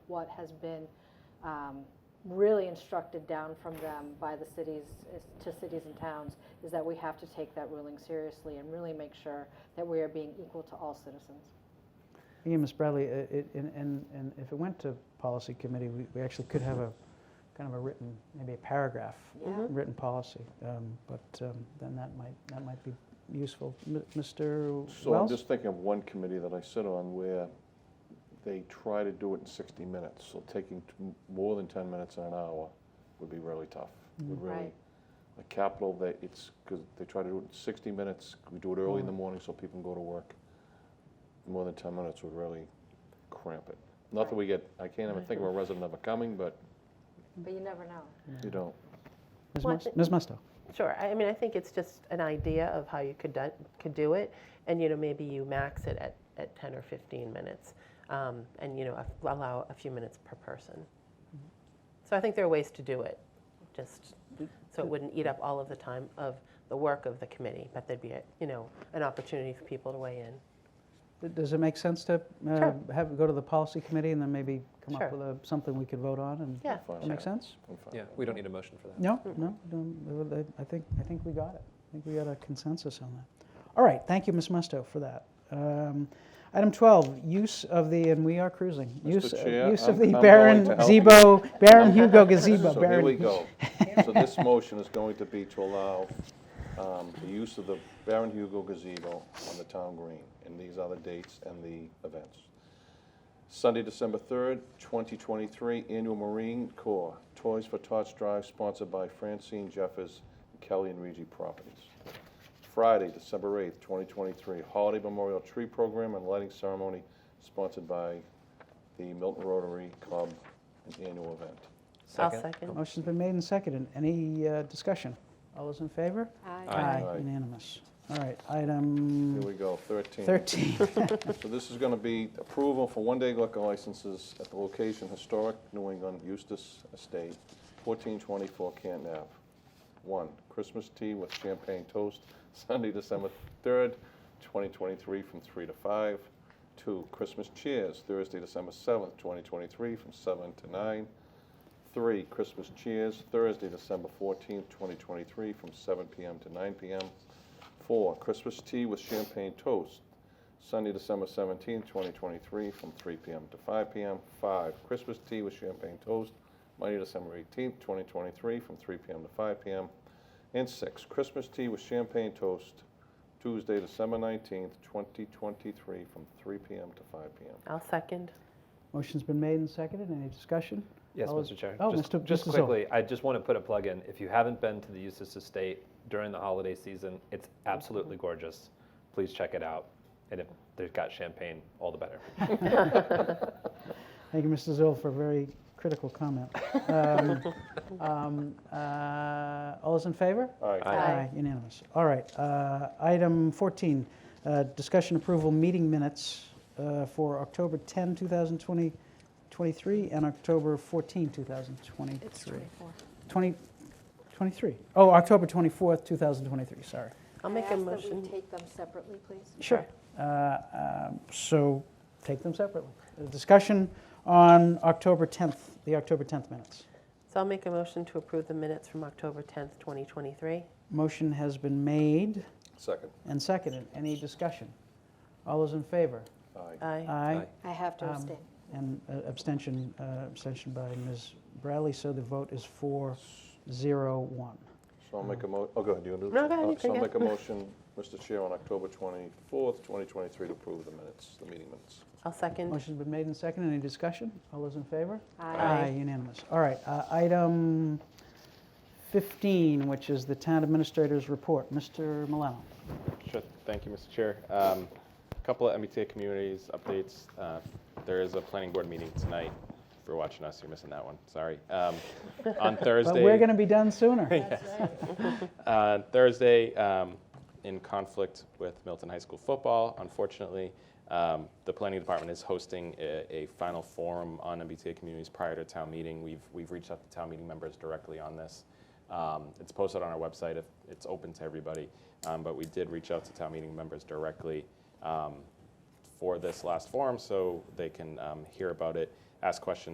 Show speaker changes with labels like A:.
A: what has been um, really instructed down from them by the cities, is- to cities and towns, is that we have to take that ruling seriously and really make sure that we are being equal to all citizens.
B: Yeah, Ms. Bradley, uh, it, and, and, and if it went to policy committee, we, we actually could have a, kind of a written, maybe a paragraph,
C: Mhm.
B: written policy. Um, but, um, then that might, that might be useful. M- Mr.
D: So I'm
B: Wells?
D: just thinking of one committee that I sit on where they try to do it in 60 minutes. So taking t- more than 10 minutes in an hour would be really tough. Would really,
A: Right.
D: a capital that it's, because they try to do it in 60 minutes. We do it early in the morning so people can go to work. More than 10 minutes would really cramp it. Not that we get, I can't even think of a resident ever coming, but
A: But you never know.
D: you don't.
B: Ms.
C: Well,
B: Mus-
C: it-
B: Ms. Musto?
C: Sure. I I mean, I think it's just an idea of how you could do, could do it, and you know, maybe you max it at, at 10 or 15 minutes, um, and you know, a- allow a few minutes per person. So I think there are ways to do it, just so it wouldn't eat up all of the time of the work of the committee, but there'd be a, you know an opportunity for people to weigh in.
B: Th- Does it make sense to, uh,
C: Sure.
B: have, go to the policy committee and then maybe come up
C: Sure.
B: with a, something we could vote on and?
C: Yeah.
D: Fine.
B: That make sense?
D: I'm fine.
E: Yeah, we don't need a motion for that.
B: No, no, no, uh, I think, I think we got it. I think we got a consensus on that. All right, thank you, Ms. Musto, for that. Um, Item 12, use of the, and we are cruising.
D: Mr.
B: Use uh,
D: Chair,
B: Use of
D: I'm-
B: the
D: I'm
B: Baron
D: going to
B: Zebo, Baron Hugo gazebo.
D: So here
B: Baron-
D: we go. So this motion is going to be to allow um, the use of the Baron Hugo gazebo on the town green, and these are the dates and the events. Sunday, December 3rd, 2023, Annual Marine Corps Toys for Tots Drive, sponsored by Francine Jeffers, Kelly and Regi Properties. Friday, December 8th, 2023, Holiday Memorial Tree Program and Lighting Ceremony, sponsored by the Milton Rotary Club, an annual event.
C: I'll second.
B: Motion's been made and seconded. Any uh, discussion? All those in favor?
A: Uh,
B: Uh,
D: Aye.
B: Unanimous. All right,
D: Here
B: item
D: we go, 13.
B: 13.
D: So this is going to be approval for one-day liquor licenses at the location Historic New England Eustace Estate, 1424 Canton Ave. One, Christmas tea with champagne toast, Sunday, December 3rd, 2023, from 3 to 5. Two, Christmas cheers, Thursday, December 7th, 2023, from 7 to 9. Three, Christmas cheers, Thursday, December 14th, 2023, from 7 p.m. to 9 p.m. Four, Christmas tea with champagne toast, Sunday, December 17, 2023, from 3 p.m. to 5 p.m. 5. Christmas tea with champagne toast, Monday, December 18, 2023, from 3 p.m. to 5 p.m. And 6. Christmas tea with champagne toast, Tuesday, December 19, 2023, from 3 p.m. to 5 p.m.
C: I'll second.
B: Motion's been made and seconded. Any discussion?
E: Yes,
B: All those-
E: Mr. Chair.
B: Oh,
E: Just-
B: Mr.
E: Just
B: Mr. Zoll.
E: quickly, I just want to put a plug in. If you haven't been to the Eustace Estate during the holiday season, it's absolutely gorgeous. Please check it out. And if they've got champagne, all the better.
B: Thank you, Mr. Zoll, for a very critical comment. Um, um, uh, All those in favor?
D: All right.
E: Aye.
B: Unanimous. All right, uh, item 14, uh, discussion approval meeting minutes uh, for October 10, 2023, and October 14, 2023.
A: It's 24.
B: 20 23. Oh, October 24th, 2023, sorry.
C: I'll
A: I
C: make a
A: ask that we
C: motion.
A: take them separately, please?
B: Sure. Uh, um, So take them separately. Uh, Discussion on October 10th, the October 10th minutes.
C: So I'll make a motion to approve the minutes from October 10th, 2023.
B: Motion has been made
D: Second.
B: and seconded. Any discussion? All those in favor?
D: Aye.
C: Aye.
B: Aye.
A: I have to
B: Um,
A: abstain.
B: And uh, abstention, uh, abstention by Ms. Bradley, so the vote is four, zero, one.
D: So I'll make a mo, oh, go ahead, do you want to do
C: No, go ahead,
D: Oh,
C: you
D: So
C: take
D: I'll
C: it.
D: make a motion, Mr. Chair, on October 24th, 2023, to approve the minutes, the meeting minutes.
C: I'll second.
B: Motion's been made and seconded. Any discussion? All those in favor?
A: Aye.
B: Unanimous. All right, uh, item 15, which is the town administrator's report. Mr. Milano.
F: Sure. Thank you, Mr. Chair. Um, A couple of MBTA communities updates. Uh, There is a planning board meeting tonight. If you're watching us, you're missing that one. Sorry. Um, On Thursday.
B: But we're going to be done sooner.
F: Uh, Thursday, um, in conflict with Milton High School football, unfortunately, um, the planning department is hosting a, a final forum on MBTA communities prior to town meeting. We've, we've reached out to town meeting members directly on this. Um, it's posted on our website. If it's open to everybody, um, but we did reach out to town meeting members directly. Um, for this last forum, so they can um, hear about it, ask questions.